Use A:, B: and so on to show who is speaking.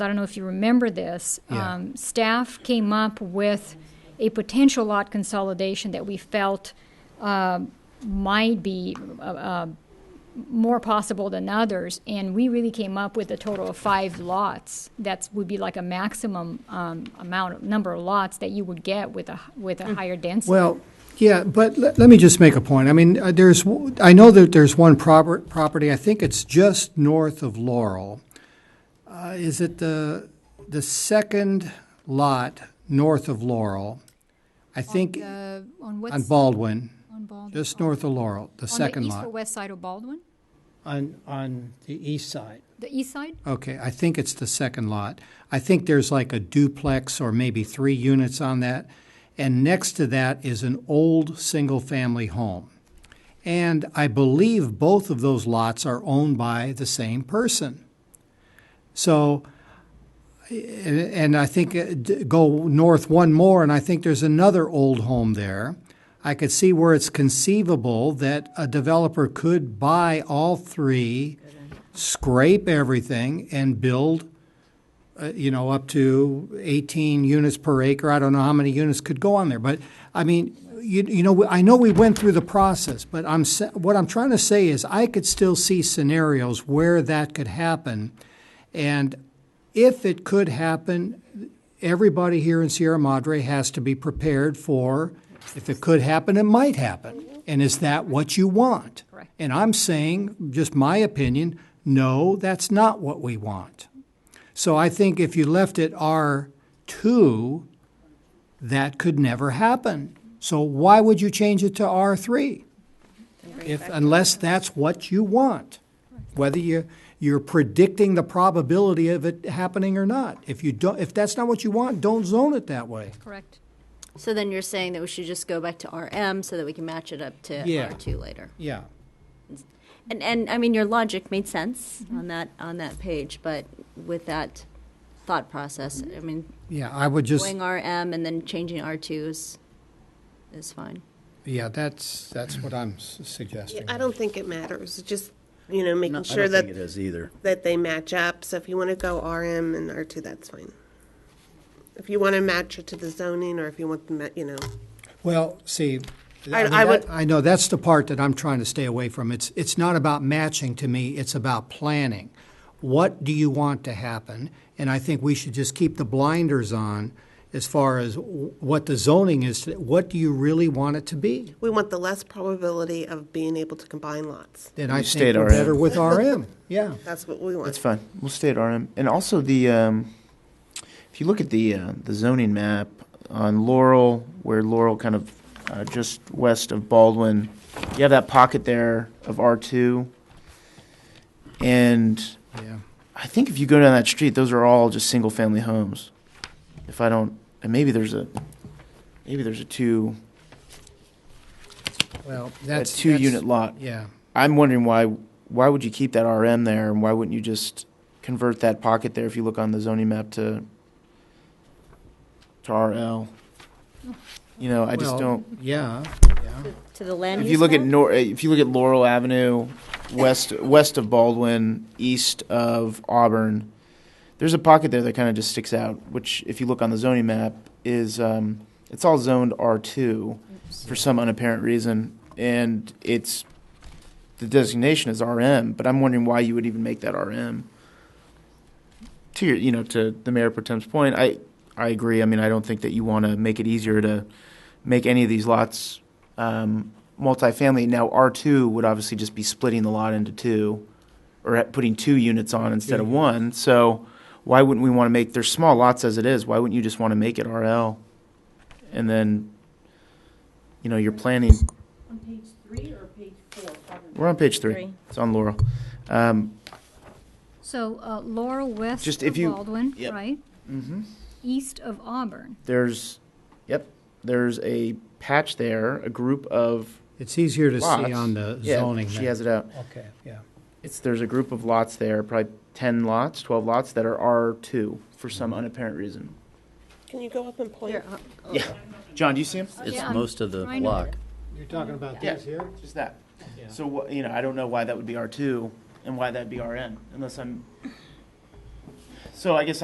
A: I don't know if you remember this.
B: Yeah.
A: Um, staff came up with a potential lot consolidation that we felt uh, might be uh, uh, more possible than others, and we really came up with a total of five lots. That would be like a maximum um, amount, number of lots that you would get with a with a higher density.
B: Well, yeah, but let, let me just make a point. I mean, uh, there's, w- I know that there's one proper, property, I think it's just north of Laurel. Uh, is it the, the second lot north of Laurel? I think
A: uh, on what
B: on Baldwin, just north of Laurel, the second
A: east or
B: lot.
A: west side of Baldwin,
C: on, on the east side.
A: the east side.
B: Okay, I think it's the second lot. I think there's like a duplex or maybe three units on that. And next to that is an old single-family home. And I believe both of those lots are owned by the same person. So, and I think uh, d- go north one more, and I think there's another old home there. I could see where it's conceivable that a developer could buy all three, scrape everything, and build, uh, you know, up to 18 units per acre. I don't know how many units could go on there, but I mean, you, you know, I know we went through the process, but I'm sa- what I'm trying to say is I could still see scenarios where that could happen, and if it could happen, everybody here in Sierra Madre has to be prepared for if it could happen, it might happen. And is that what you want?
A: Correct.
B: And I'm saying, just my opinion, no, that's not what we want. So I think if you left it R2, that could never happen. So why would you change it to R3? If, unless that's what you want, whether you, you're predicting the probability of it happening or not. If you don't, if that's not what you want, don't zone it that way.
A: Correct.
D: So then you're saying that we should just go back to RM so that we can match it up to
B: Yeah.
D: R2 later.
B: Yeah.
D: And, and I mean, your logic made sense
E: Mm-hmm.
D: on that, on that page, but with that thought process, I mean,
B: Yeah, I would just,
D: going RM and then changing R2 is, is fine.
B: yeah, that's, that's what I'm s- suggesting.
F: I don't think it matters, It's just, you know, making
E: No,
F: sure
E: I don't think it
F: that,
E: is either.
F: that they match up, so if you want to go RM and R2, that's fine. If you want to match it to the zoning, or if you want, to ma- you know,
B: Well, see, I
F: I-
B: mean,
F: I would-
B: that- I know, that's the part that I'm trying to stay away from. It's, it's not about matching to me, it's about planning. What do you want to happen? And I think we should just keep the blinders on as far as w- what the zoning is, to- what do you really want it to be?
F: we want the less probability of being able to combine lots.
B: Then I
E: You
B: think
E: stayed
B: we're
E: RM.
B: better with RM, yeah.
F: That's what we
E: That's
F: want.
E: fine. We'll stay at RM. And also the, um, if you look at the uh, the zoning map on Laurel, where Laurel kind of uh, just west of Baldwin, you have that pocket there of R two. And
B: Yeah.
E: I think if you go down that street, those are all just single family homes. If I don't, and maybe there's a maybe there's a two
B: Well,
E: a
B: that's.
E: two
B: that's-
E: unit lot.
B: Yeah.
E: I'm wondering why why would you keep that RM there, and why wouldn't you just convert that pocket there if you look on the zoning map to to RL? You know, I just
B: Well,
E: don't.
B: Yeah, yeah.
D: To the land
E: If
D: use
E: you look at
D: map?
E: Nor, if you look at Laurel Avenue, west west of Baldwin, east of Auburn, there's a pocket there that kind of just sticks out. Which, if you look on the zoning map, is um, it's all zoned R two for some unapparent reason, and it's the designation is RM. But I'm wondering why you would even make that RM. To your, you know, to the mayor pro tem's point, I I agree. I mean, I don't think that you want to make it easier to make any of these lots um, multifamily. Now, R two would obviously just be splitting the lot into two, or at- putting two units on instead
B: Mm-hmm.
E: of one. So, why wouldn't we want to make? There's small lots as it is. Why wouldn't you just want to make it RL, and then, you know, you're planning.
G: On page three or page four?
E: We're on page three.
G: Three.
E: It's on Laurel. Um,
A: So uh, Laurel west
E: Just
A: of
E: if you-
A: Baldwin,
E: yep. Mm-hmm.
A: right? East of Auburn.
E: there's, yep, there's a patch there, a group of
B: It's easier to see
E: lots.
B: on the
E: Yeah,
B: zoning
E: She
B: map.
E: has it out.
B: Okay, yeah.
E: It's, there's a group of lots there, probably 10 lots, 12 lots that are R2 for some unapparent reason.
F: Can you go up and point?
E: Yeah. John, do you see him?
A: Yeah,
H: It's
A: I'm
H: most of the
A: trying to-
H: block.
B: You're talking about
E: Yeah. Just that. So, wha- you know, I don't know why that would be R2 and why that'd be RN, unless I'm. So I guess